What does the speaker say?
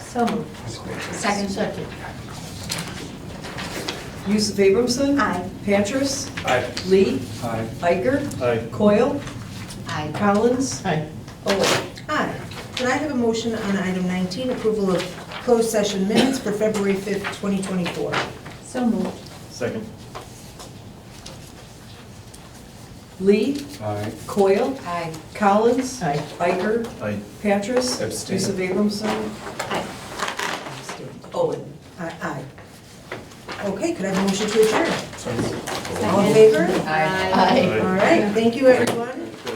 So moved. Second. Second. Yusuf Abramson. Aye. Patras. Aye. Lee. Aye. Iker. Aye. Coyle. Aye. Collins. Aye. Owen. Aye. Could I have a motion on item 19, approval of closed session minutes for February 5th, 2024? So moved. Second. Lee. Aye. Coyle. Aye. Collins. Aye. Iker. Aye. Patras. Abstain. Yusuf Abramson. Aye. Owen. Aye. Aye. Okay, could I have a motion to adjourn? So moved. All in favor? Aye. Aye. All right, thank you, everyone.